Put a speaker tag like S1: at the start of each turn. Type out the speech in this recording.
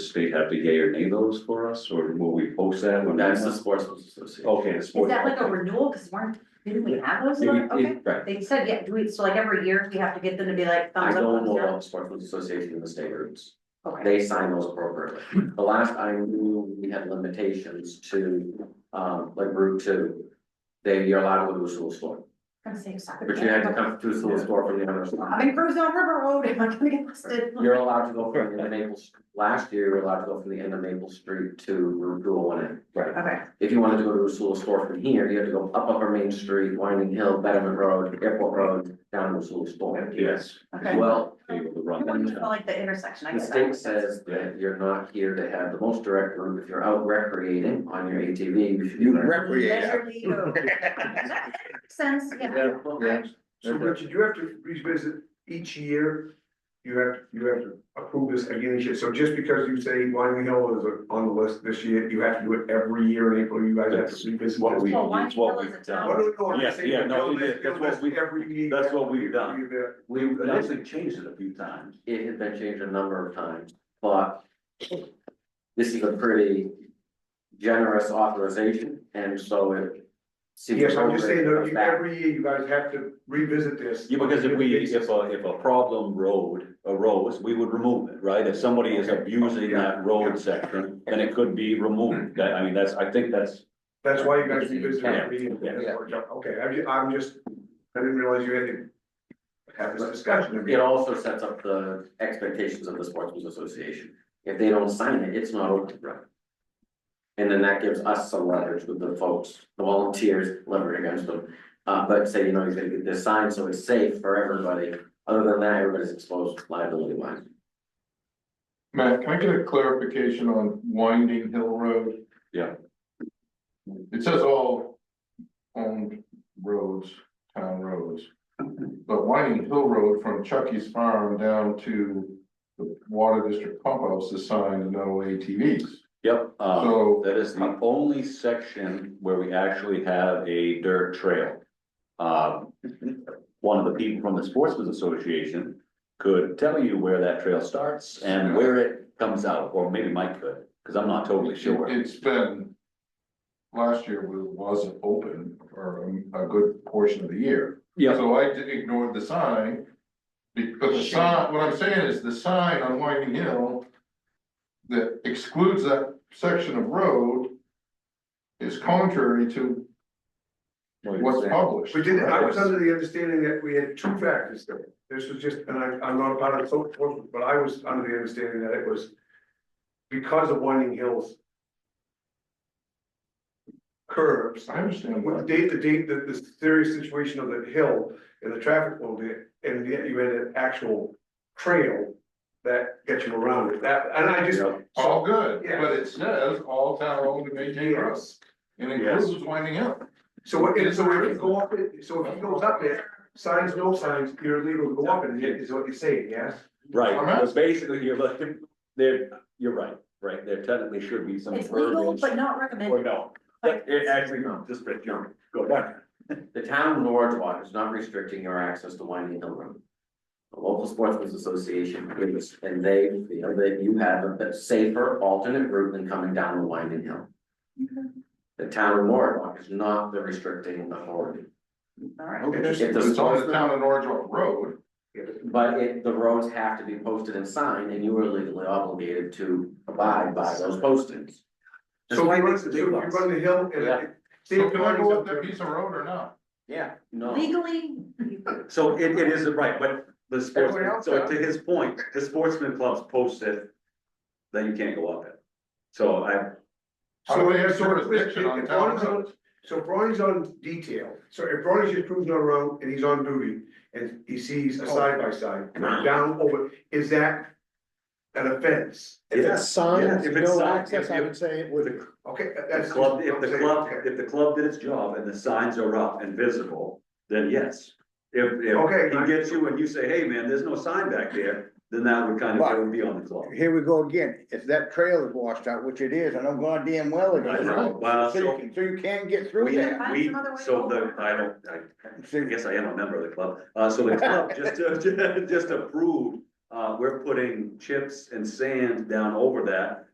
S1: participate, have the gay or nay those for us, or will we post that when?
S2: That's the Sportsman's Association.
S1: Okay, the
S3: Is
S1: sports.
S3: that like a renewal, cause weren't, didn't we have those,
S1: It-
S3: one?
S1: it-
S3: okay,
S1: Right,
S3: they said, yeah, do we, so like every year, we have to get them to be like
S2: I
S3: thumbs up,
S2: don't
S3: thumbs
S2: know
S3: down?
S2: about Sportsman's Association in the state routes.
S3: Okay,
S2: They sign those appropriately. The last I knew, we had limitations to, um, like Route Two. They, you're allowed to go to a school store,
S3: I'm saying soccer.
S2: but you had to come to a school store from the other side.
S3: I'm in Cruise on River Road, am I gonna get listed?
S2: You're allowed to go from the end of Maple, last year, you were allowed to go from the end of Maple Street to Route Two oh one A.
S1: right.
S3: Okay,
S2: If you wanted to go to a school store from here, you had to go up Upper Main Street, Winding Hill, Betterman Road, Airport Road, down to a school store.
S1: Yes.
S3: Okay.
S2: Well,
S1: Be able to
S3: I
S1: run
S3: wouldn't
S1: that.
S3: feel like the intersection, I
S2: The
S3: guess.
S2: state says that you're not here to have the most direct route, if you're out recreating on your ATV, you should be.
S4: You
S2: there.
S4: recreate.
S3: Leisurely go. That makes Sense, yeah.
S4: Yeah.
S2: Yeah.
S4: So Richard, you have to revisit each year, you have, you have to approve this again each year, so just because you say Wyoming Hill is on the list this year, you have to do it every year in April, you guys have
S1: That's
S4: to revisit.
S1: what
S4: this.
S1: we-
S3: Well, one
S1: it's what
S3: hill is
S1: we've
S3: a
S1: done.
S4: Oh,
S3: town,
S4: no, no, I'm
S1: Yeah,
S4: saying
S1: yeah, no,
S4: build
S1: it is. That's
S4: this- build
S1: what
S4: this
S1: we-
S4: every year,
S1: that's what we've
S4: every
S1: done.
S4: year.
S1: We, I actually changed it a few times.
S2: It had been changed a number of times, but this is a pretty generous authorization, and so it seems.
S4: Yes, I'm
S2: appropriate
S4: just saying,
S2: to
S4: that
S2: come
S4: you-
S2: back.
S4: every year you guys have to revisit this.
S1: Yeah, because if we, if
S4: Okay.
S1: a, if a problem road arose, we would remove it, right? If somebody is abusing that road section, then it could be removed. That, I mean, that's, I think that's,
S4: That's why you guys revisit
S1: Yeah.
S4: every year,
S1: Yeah.
S4: That's what- okay, I'm just, I'm just, I didn't realize you had to have this discussion.
S2: It also sets up the expectations of the Sportsman's Association. If they don't sign it, it's not open, right? And then that gives us some leverage with the folks, the volunteers, leverage against them. Uh, but say, you know, you're gonna get this signed, so it's safe for everybody. Other than that, everybody's exposed liability wise.
S5: Matt, can I get a clarification on Winding Hill Road?
S1: Yeah.
S5: It says all owned roads, town roads. But Winding Hill Road from Chucky's Farm down to the Water District Pump House is signed no ATVs.
S1: yep, uh,
S5: So,
S1: that is the only section where we actually have a dirt trail. Um one of the people from the Sportsman's Association could tell you where that trail starts and where it comes out, or maybe Mike could, because I'm not totally sure.
S5: it's been, last year was- wasn't open for a a good portion of the year.
S1: Yeah.
S5: So I did- ignored the sign, because the sign, what I'm saying is the sign on Whiting Hill that excludes that section of road is contrary to what's published.
S4: We did, I was under the understanding that we had two factors there. This was just, and I, I'm not part of the social enforcement, but I was under the understanding that it was because of Winding Hills curves,
S5: I understand
S4: with the
S5: that,
S4: date, the date, the, the serious situation of the hill and the traffic flow there, and yet you had an actual trail that gets you around it. That, and I just,
S5: all good,
S4: Yeah.
S5: but it says all town owned and maintained roads, and
S1: Yes.
S5: includes Whiting Hill.
S4: so, it- so if you go up, it- so if he goes up there, signs, no signs, you're illegal to go up in it, is what you're saying, yes?
S1: Right,
S5: I'm not-
S1: but basically, you're looking, there, you're right, right, there technically should be some
S3: it's legal,
S1: verbiage.
S3: but not
S1: Or
S3: recommended,
S1: no, but it actually, no, just for jump, go down.
S2: The town of Norwood is not restricting your access to Winding Hill Road. The local sportsmen's association agrees, and they feel that you have a bit safer alternate route than coming down the Winding Hill. The town of Norwood is not the restricting authority,
S3: alright.
S4: Interesting.
S2: If the
S5: It's on the
S2: sportsman,
S5: town of Norwich Road,
S2: but it, the roads have to be posted and signed, and you are legally obligated to abide by those postings.
S4: So we run, so if you run the hill and.
S2: Yeah.
S4: it-
S5: so can I go up that piece of road or not?
S2: Yeah, no.
S3: Legally,
S1: So it, it is, right, but the
S4: Everyone
S1: sportsman,
S4: else
S1: so
S4: does.
S1: to his point, the sportsman clubs posted that you can't go up it. So I,
S5: How do
S4: So
S5: we
S4: if,
S5: have
S4: so if, if
S5: jurisdiction on town
S4: Ronnie's on,
S5: roads?
S4: so if Ronnie's on detail, so if Ronnie's just cruising around and he's on duty and he sees
S1: Oh.
S4: a side by side down over, is that an offense?
S6: If it's signed,
S1: Yeah, if it's
S6: no
S1: signed,
S6: access,
S1: if-
S6: I would say it would,
S4: Okay,
S1: the
S4: that's.
S1: club, if
S4: I'm
S1: the
S4: saying,
S1: club,
S4: okay.
S1: if the club did its job and the signs are up and visible, then yes. If,
S4: Okay,
S1: if
S4: I-
S1: he gets you and you say, hey, man, there's no sign back there, then that would kind of, that would be on the club.
S6: here we go again, if that trail is washed out, which it is, and I'm going damn well it
S1: I
S6: is.
S1: know. Well,
S6: So you
S1: so-
S6: can, so you can get through
S1: We,
S6: there.
S3: find
S1: we,
S3: some other way
S1: so the,
S3: over.
S1: I don't, I
S6: So
S1: I guess I am a member of the club, uh, so the club just, just approved uh, we're putting chips and sand down over that